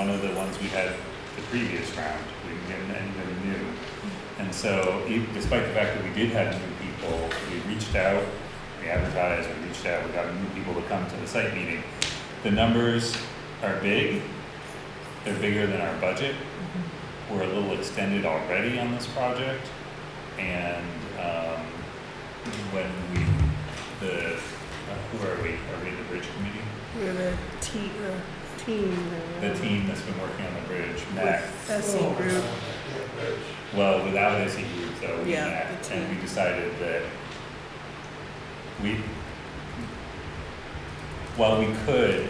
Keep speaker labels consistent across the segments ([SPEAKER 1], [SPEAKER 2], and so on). [SPEAKER 1] we had the previous round, we didn't get anybody new. And so, e- despite the fact that we did have new people, we reached out, we advertised, we reached out, we got new people to come to the site meeting. The numbers are big, they're bigger than our budget. We're a little extended already on this project, and, um, when we, the, uh, who are we, are we the bridge committee?
[SPEAKER 2] We're the team, the team. uh,
[SPEAKER 1] The team that's been working on the bridge, Mac,
[SPEAKER 2] With
[SPEAKER 3] Oh.
[SPEAKER 2] SE group.
[SPEAKER 1] well, without SE group though, we
[SPEAKER 2] Yeah,
[SPEAKER 1] Mac,
[SPEAKER 2] the
[SPEAKER 1] and we
[SPEAKER 2] team.
[SPEAKER 1] decided that we, while we could,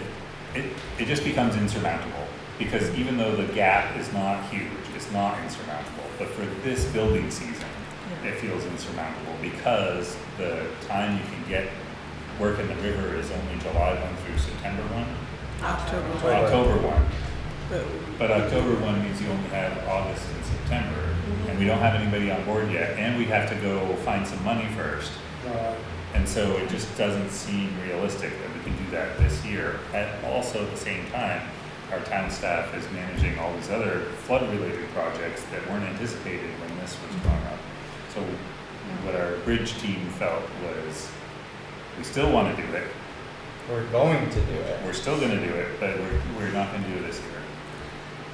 [SPEAKER 1] it, it just becomes insurmountable. Because even though the gap is not huge, it's not insurmountable, but for this building season,
[SPEAKER 2] Yeah.
[SPEAKER 1] it feels insurmountable because the time you can get work in the river is only July one through September one,
[SPEAKER 2] October,
[SPEAKER 1] or October one.
[SPEAKER 2] but
[SPEAKER 1] But October one means you only have August and September, and we don't have anybody on board yet, and we have to go find some money first. And so it just doesn't seem realistic that we can do that this year. At also at the same time, our town staff is managing all these other flood-related projects that weren't anticipated when this was going up. So what our bridge team felt was, we still wanna do it,
[SPEAKER 3] We're going to do it.
[SPEAKER 1] we're still gonna do it, but we're, we're not gonna do it this year.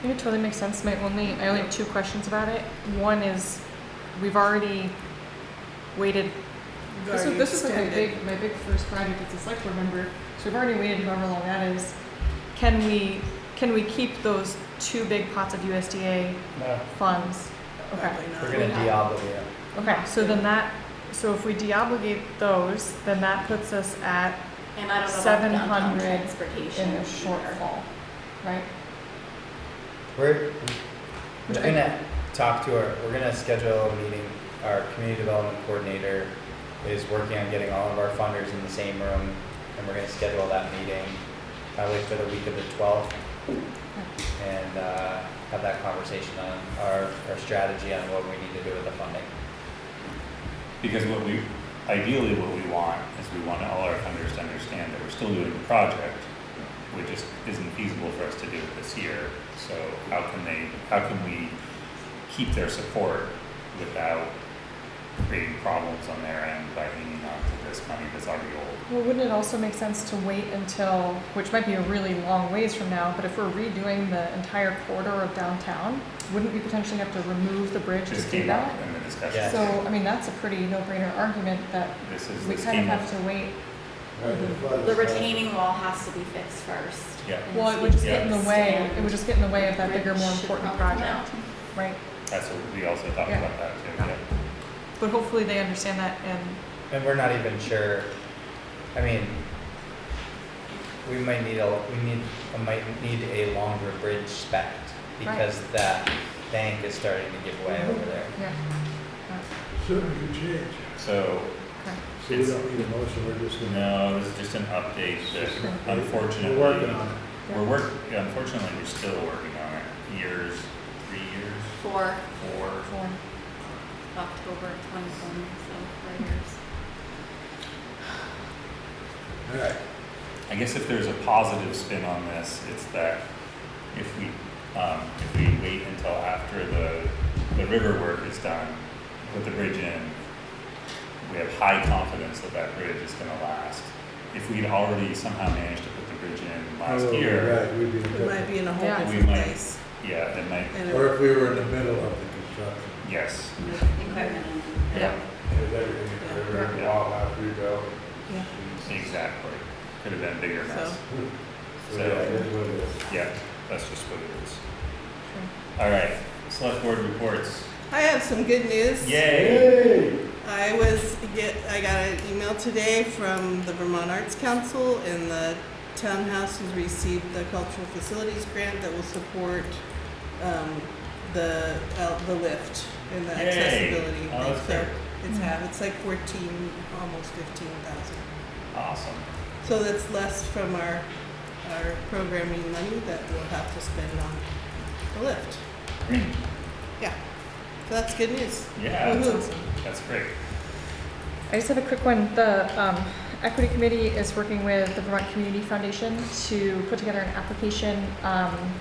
[SPEAKER 4] Yeah, It totally makes sense. My only, I only have two questions about it. One is, we've already waited.
[SPEAKER 2] we've
[SPEAKER 4] This was,
[SPEAKER 2] already
[SPEAKER 4] this was like my
[SPEAKER 2] extended.
[SPEAKER 4] big, my big first project as a select board member, so we've already waited however long that is. Can we, can we keep those two big pots of USDA
[SPEAKER 3] No,
[SPEAKER 4] funds? Okay,
[SPEAKER 2] Probably not.
[SPEAKER 3] we're gonna de-obligate. it.
[SPEAKER 4] okay, so then that, so if we de-obligate those, then that puts us at
[SPEAKER 5] And I don't know about
[SPEAKER 4] 700
[SPEAKER 5] downtown
[SPEAKER 4] in
[SPEAKER 5] transportation
[SPEAKER 4] a
[SPEAKER 5] either.
[SPEAKER 4] shortfall, right?
[SPEAKER 3] We're,
[SPEAKER 4] Which
[SPEAKER 3] we're
[SPEAKER 4] I-
[SPEAKER 3] gonna talk to our, we're gonna schedule a meeting. Our community development coordinator is working on getting all of our funders in the same room, and we're gonna schedule that meeting probably for the week of the twelfth. And, uh, have that conversation on our, our strategy on what we need to do with the funding.
[SPEAKER 1] Because what we, ideally what we want is we want all our funders to understand that we're still doing the project, which just isn't feasible for us to do it this year. So how can they, how can we keep their support without creating problems on their end by hanging on to this money that's already old?
[SPEAKER 4] Well, wouldn't it also make sense to wait until, which might be a really long ways from now, but if we're redoing the entire corridor of downtown, wouldn't we potentially have to remove the bridge to
[SPEAKER 1] Just
[SPEAKER 4] do
[SPEAKER 1] came up
[SPEAKER 4] that?
[SPEAKER 1] in the
[SPEAKER 3] Yeah.
[SPEAKER 1] discussion.
[SPEAKER 4] So, I mean, that's a pretty no-brainer argument that
[SPEAKER 1] This is,
[SPEAKER 4] we
[SPEAKER 1] this
[SPEAKER 4] kind of
[SPEAKER 1] came up.
[SPEAKER 4] have to wait.
[SPEAKER 5] The retaining wall has to be fixed first.
[SPEAKER 1] Yeah,
[SPEAKER 4] Well, it would just
[SPEAKER 1] Yeah.
[SPEAKER 4] get in the way, it would just get in the way of that bigger, more
[SPEAKER 5] Bridge should
[SPEAKER 4] important
[SPEAKER 5] probably
[SPEAKER 4] project, right?
[SPEAKER 1] that's what we also talked
[SPEAKER 4] Yeah.
[SPEAKER 1] about that too,
[SPEAKER 4] Yeah.
[SPEAKER 1] yeah.
[SPEAKER 4] But hopefully they understand that and,
[SPEAKER 3] And we're not even sure, I mean, we might need a, we need, we might need a longer bridge spec because that bank is starting to give way over there.
[SPEAKER 4] yeah,
[SPEAKER 6] Certainly could change.
[SPEAKER 1] So
[SPEAKER 4] okay.
[SPEAKER 6] So we don't need a motion, we're just gonna.
[SPEAKER 1] No, this is just an update that unfortunately.
[SPEAKER 6] We're working on it.
[SPEAKER 1] We're work, unfortunately, we're still working on it. Years, three years,
[SPEAKER 5] For
[SPEAKER 1] four.
[SPEAKER 4] Cool.
[SPEAKER 5] October twenty twenty, so four years.
[SPEAKER 6] All right,
[SPEAKER 1] I guess if there's a positive spin on this, it's that if we, um, if we wait until after the, the river work is done, put the bridge in, we have high confidence that that bridge is gonna last. If we'd already somehow managed to put the bridge in last
[SPEAKER 6] Oh,
[SPEAKER 1] year,
[SPEAKER 6] Right, we'd be in
[SPEAKER 2] We might
[SPEAKER 6] trouble.
[SPEAKER 2] be in a whole
[SPEAKER 4] Yeah.
[SPEAKER 1] We
[SPEAKER 2] different
[SPEAKER 1] might.
[SPEAKER 2] place.
[SPEAKER 1] yeah, it might,
[SPEAKER 2] And
[SPEAKER 6] Or
[SPEAKER 2] it-
[SPEAKER 6] if we were in the middle of the construction,
[SPEAKER 1] yes,
[SPEAKER 5] Equipment and.
[SPEAKER 1] yeah,
[SPEAKER 6] there's everything, in the river,
[SPEAKER 1] Yeah.
[SPEAKER 6] wildlife, we go.
[SPEAKER 2] yeah.
[SPEAKER 1] exactly. Could have been a bigger mess.
[SPEAKER 2] So-
[SPEAKER 6] So, Hmm. yeah, it is what it is.
[SPEAKER 1] Yeah, that's just what it is. All right, select board reports.
[SPEAKER 2] I have some good news.
[SPEAKER 1] Yay!
[SPEAKER 2] I was get I got an email today from the Vermont Arts Council and the townhouse has received the cultural facilities grant that will support um, the uh, the lift and the
[SPEAKER 1] Yay.
[SPEAKER 2] accessibility.
[SPEAKER 1] Oh,
[SPEAKER 2] thing.
[SPEAKER 1] that's
[SPEAKER 2] So
[SPEAKER 1] great.
[SPEAKER 2] It's have it's like fourteen, almost fifteen thousand.
[SPEAKER 1] Awesome.
[SPEAKER 2] So that's less from our our programming money that we'll have to spend on the lift.
[SPEAKER 1] Great.
[SPEAKER 2] Yeah. So that's good news.
[SPEAKER 1] Yeah,
[SPEAKER 2] Woohoo.
[SPEAKER 1] that's, that's great.
[SPEAKER 4] I just have a quick one. The um, Equity Committee is working with the Vermont Community Foundation to put together an application um,